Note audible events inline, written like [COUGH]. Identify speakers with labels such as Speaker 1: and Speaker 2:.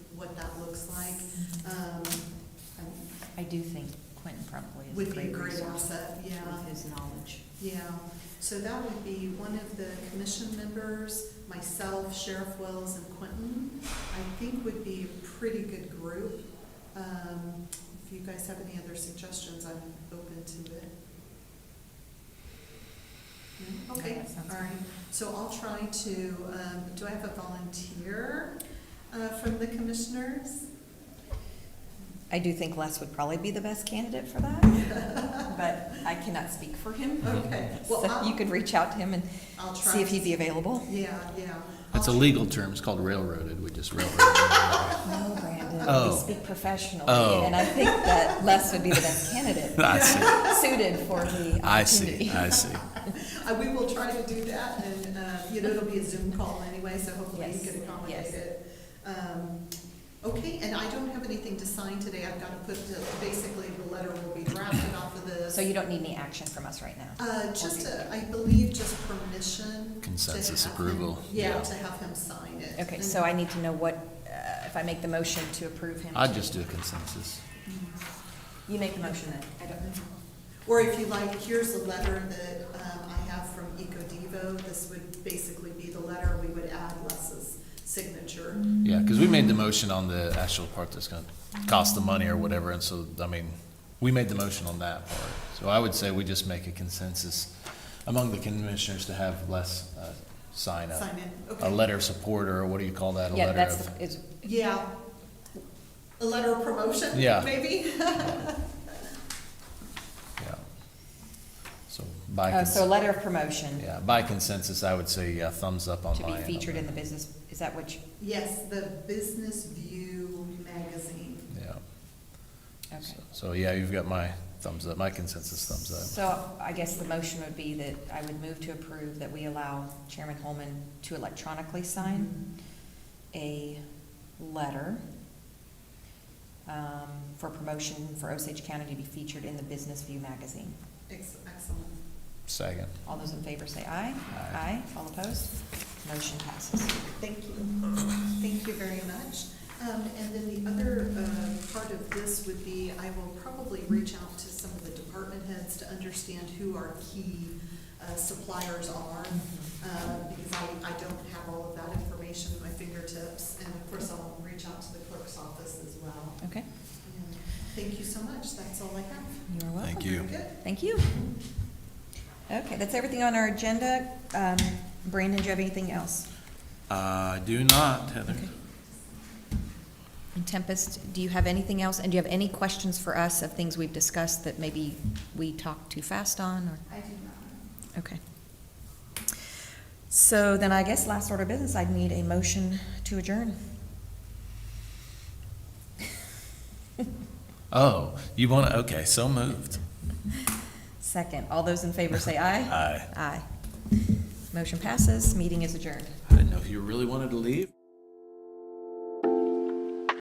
Speaker 1: looks like, um,
Speaker 2: I do think Quentin probably is
Speaker 1: would
Speaker 2: a
Speaker 1: be a
Speaker 2: great
Speaker 1: great
Speaker 2: resource
Speaker 1: asset, yeah.
Speaker 2: with his knowledge.
Speaker 1: Yeah, so that would be one of the commission members, myself, Sheriff Wells, and Quentin. I think would be a pretty good group. Um, If you guys have any other suggestions, I'm open to it. No?
Speaker 2: Yeah,
Speaker 1: Okay,
Speaker 2: that sounds
Speaker 1: all right. So I'll try to, um, do I have a volunteer uh, from the commissioners?
Speaker 2: I do think Les would probably be the best candidate for
Speaker 1: [LAUGHS]
Speaker 2: that, but I cannot speak for [LAUGHS] him.
Speaker 1: Okay, well,
Speaker 2: So you
Speaker 1: I'll,
Speaker 2: could reach out to him and
Speaker 1: I'll try.
Speaker 2: see if he'd be available.
Speaker 1: Yeah, yeah.
Speaker 3: That's a
Speaker 1: I'll-
Speaker 3: legal term, it's called railroaded, [LAUGHS] we just railroaded.
Speaker 2: No, Brandon, we
Speaker 3: Oh.
Speaker 2: speak
Speaker 3: Oh.
Speaker 2: professionally, and I think that Les would be the best
Speaker 1: [LAUGHS]
Speaker 2: candidate
Speaker 3: I see,
Speaker 2: suited for the
Speaker 3: I see,
Speaker 2: opportunity.
Speaker 3: I see.
Speaker 1: Uh, we will try to do that, and, uh, you know, it'll be a Zoom call anyway, so hopefully you
Speaker 2: Yes,
Speaker 1: can accommodate
Speaker 2: yes.
Speaker 1: it. Um, Okay, and I don't have anything to sign today, I've got to put, the- basically, the letter will be drafted off of this.
Speaker 2: So you don't need any action from us right now?
Speaker 1: Uh, just, a- I believe, just permission. to
Speaker 3: Consensus
Speaker 1: have him-
Speaker 3: approval,
Speaker 1: Yeah,
Speaker 3: yeah.
Speaker 1: to have him sign it.
Speaker 2: Okay,
Speaker 1: And-
Speaker 2: so I need to know what, uh, if I make the motion to approve him.
Speaker 3: I'd just do a consensus.
Speaker 2: You make the motion then.
Speaker 1: I don't know. Or if you like, here's a letter that um, I have from EcoDevo. This would basically be the letter. We would add Les's signature.
Speaker 2: Mm-hmm.
Speaker 3: Yeah, because we made the motion on the actual part that's gonna cost the money or whatever, and so, I mean, we made the motion on that part. So I would say we just make a consensus among the commissioners to have less, uh, sign up.
Speaker 1: Sign it,
Speaker 3: A
Speaker 1: okay.
Speaker 3: letter of support, or what do you call that, a
Speaker 2: Yeah,
Speaker 3: letter
Speaker 2: that's,
Speaker 3: of?
Speaker 2: the- is,
Speaker 1: Yeah. A letter of promotion,
Speaker 3: Yeah.
Speaker 1: maybe? [LAUGHS]
Speaker 3: Yeah. So by,
Speaker 2: oh, so a
Speaker 3: cons-
Speaker 2: letter of promotion
Speaker 3: yeah, by consensus, I would say yeah, thumbs up on
Speaker 2: to
Speaker 3: my
Speaker 2: be
Speaker 3: end on
Speaker 2: featured in
Speaker 3: that.
Speaker 2: the business, is that what you,
Speaker 1: Yes, the Business View magazine.
Speaker 3: Yeah.
Speaker 2: okay.
Speaker 3: So- So, yeah, you've got my thumbs up, my consensus thumbs up.
Speaker 2: So I guess the motion would be that I would move to approve that we allow Chairman Holman to electronically sign a letter um, for promotion for Osage County to be featured in the Business View magazine.
Speaker 1: Ex- Excellent.
Speaker 3: Second.
Speaker 2: All those in favor say aye.
Speaker 3: Aye.
Speaker 2: All opposed? Motion passes.
Speaker 1: Thank you. Thank you very much. Um, And then the other uh, part of this would be, I will probably reach out to some of the department heads to understand who our key uh, suppliers are, uh, because I, I don't have all of that information at my fingertips. And of course, I'll reach out to the clerk's office as well.
Speaker 2: Okay,
Speaker 1: And Thank you so much. That's all I have.
Speaker 2: you are welcome.
Speaker 3: Thank you.
Speaker 1: Very good.
Speaker 2: Thank you. Okay, that's everything on our agenda. Um, Brandon, do you have anything else?
Speaker 3: I do not, Heather.
Speaker 2: And Tempest, do you have anything else? And do you have any questions for us of things we've discussed that maybe we talked too fast on or?
Speaker 1: I do not.
Speaker 2: Okay. So then I guess last order of business, I'd need a motion to adjourn.
Speaker 3: Oh, you want to, okay, so moved.
Speaker 2: Second, all those in favor say
Speaker 3: [LAUGHS]
Speaker 2: aye.
Speaker 3: Aye.
Speaker 2: Aye. Motion passes, meeting is adjourned.
Speaker 3: I didn't know if you really wanted to leave.